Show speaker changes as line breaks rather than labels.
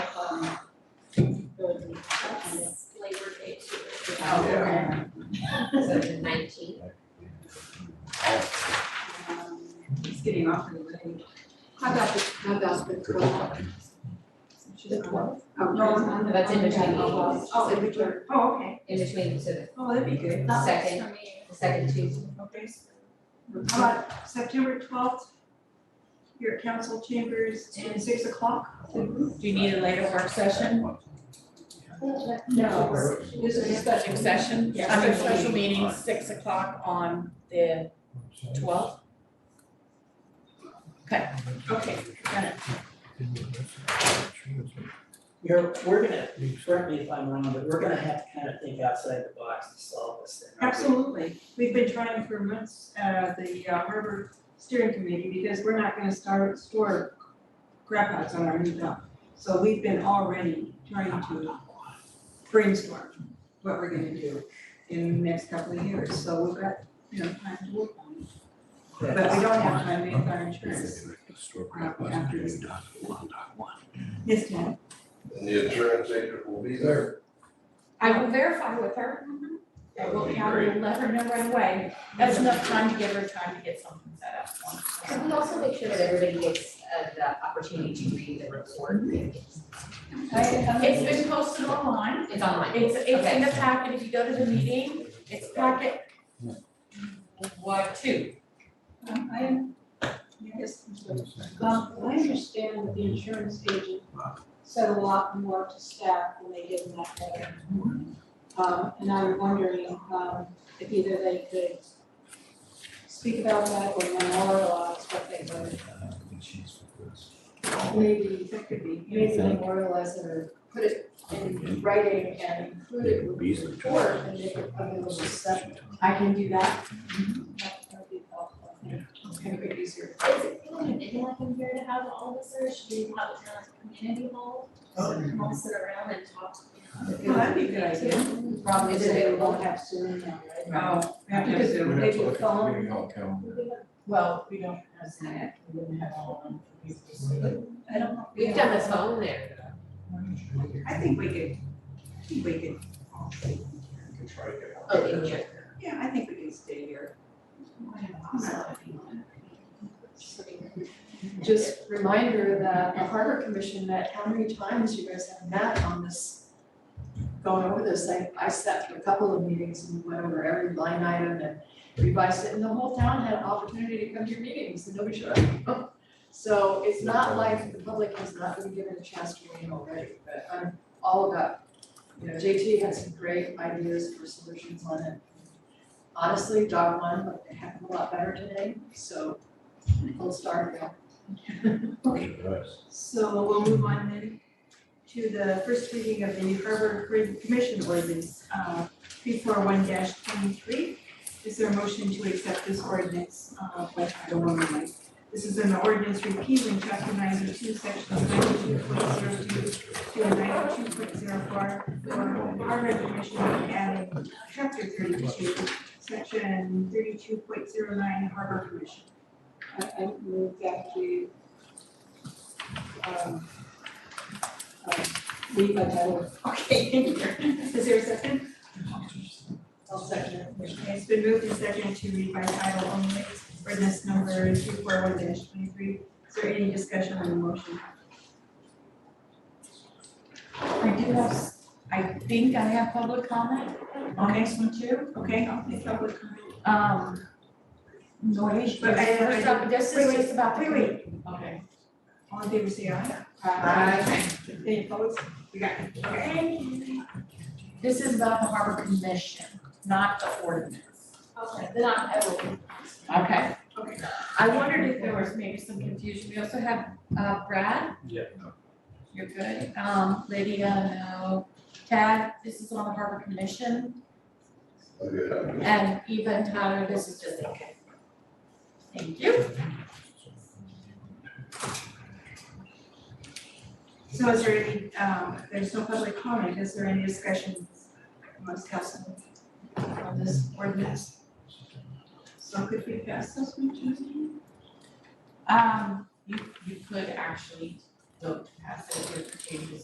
That's Labor Day too.
Oh, okay.
So the nineteenth.
He's getting awfully late. How about the, how about the twelfth?
The twelfth?
Oh,
No, it's
on the-
that's in
on the-
between meetings.
Oh, in between.
Oh, okay.
In between, so the,
Oh, that'd be good.
the
That
second,
works for me.
the second Tuesday.
Okay. How about September twelfth? Your council chambers at six o'clock?
Do you need a later work session?
No.
This is a special session,
Yeah,
I mean,
special
special meeting, six o'clock on the twelfth. Okay, okay, got it.
You're, we're gonna, correct me if I'm wrong, but we're gonna have to kind of think outside the box to solve this thing. aren't we?
Absolutely. We've been trying for months, uh, the uh, harbor steering committee, because we're not gonna start, store crap outs on our new dock. So we've been already trying to brainstorm what we're gonna do in the next couple of years, so we've got, you know, time to work on it. But we don't have time with our insurance. Yes, ma'am.
And the insurance agent will be there.
I will verify with her.
Mm-hmm.
I will, I will let her know right away. That's enough time to give her time to get something set up.
Can we also make sure that everybody gets uh, the opportunity to read the report? It's
It's been posted online.
online.
It's, it's in
Okay.
the packet. If you go to the meeting, it's packet. What, two?
I, yes.
Um, I understand that the insurance agent said a lot more to staff when they did in that letter. Um, and I'm wondering, um, if either they could speak about that or memorialize what they wrote.
Maybe that could be.
Maybe memorialize it or put it in writing and include it with the report and make it available to staff. I can do that. That that would be helpful.
Kind of easier.
Is it feeling a bit like I'm here to have all this, or should we have it down at the community hall? So we can all sit around and talk.
Well, that'd be a good idea.
The Problem is that they won't have Zoom now, right?
Oh, we have to have Zoom.
Maybe a phone.
Well, we don't
That's it.
I don't know.
We've done the phone there.
I think we could, I think we could,
Oh, in here.
yeah, I think we can stay here.
Just reminder that the harbor commission met, how many times you guys have met on this, going over this, I, I sat through a couple of meetings and went over every line item and revised it, and the whole town had an opportunity to come to your meetings, and nobody showed up. So it's not like the public has not been given a chance to weigh in already, but I'm all about, you know, JT had some great ideas for solutions on it. Honestly, dog one, looked a heck of a lot better today, so we'll start there.
So we'll move on then to the first reading of the New Harbor Grid Commission ordinance, uh, three four one twenty-three. Is there a motion to accept this ordinance, uh, by title only? This is an ordinance repealing chapter ninety-two, sections ninety-two point zero two to ninety-two point zero four for harbor commission and adding chapter thirty-two, section thirty-two point zero nine harbor commission.
I, I move that we, um, um, leave by title,
Okay, thank you. Is there a second?
I'll second it.
Okay, It's been moved and seconded to read by title only, ordinance number two four one twenty-three. Is there any discussion on the motion?
I do have, I think I have public comment on this one too.
Okay, I'll take public comment.
Um, noise.
But I- I-
First up, This
Wait,
is just about the.
uh, Wait, wait,
Okay.
all in favor say aye. Any opposed? We got it. Okay.
This is about the harbor commission, not the ordinance.
Okay, then I, I will.
Okay.
Okay.
I wondered if there was maybe some confusion. We also have uh, Brad.
Yeah.
You're good. Um, Lydia, no. Tad, this is on the harbor commission. And Eva and Tyler, this is just, okay. Thank you.
So is there any, um, there's no public comment, is there any discussion amongst council on this ordinance? So could we pass this one Tuesday?
Um, you, you could actually vote to pass it if your changes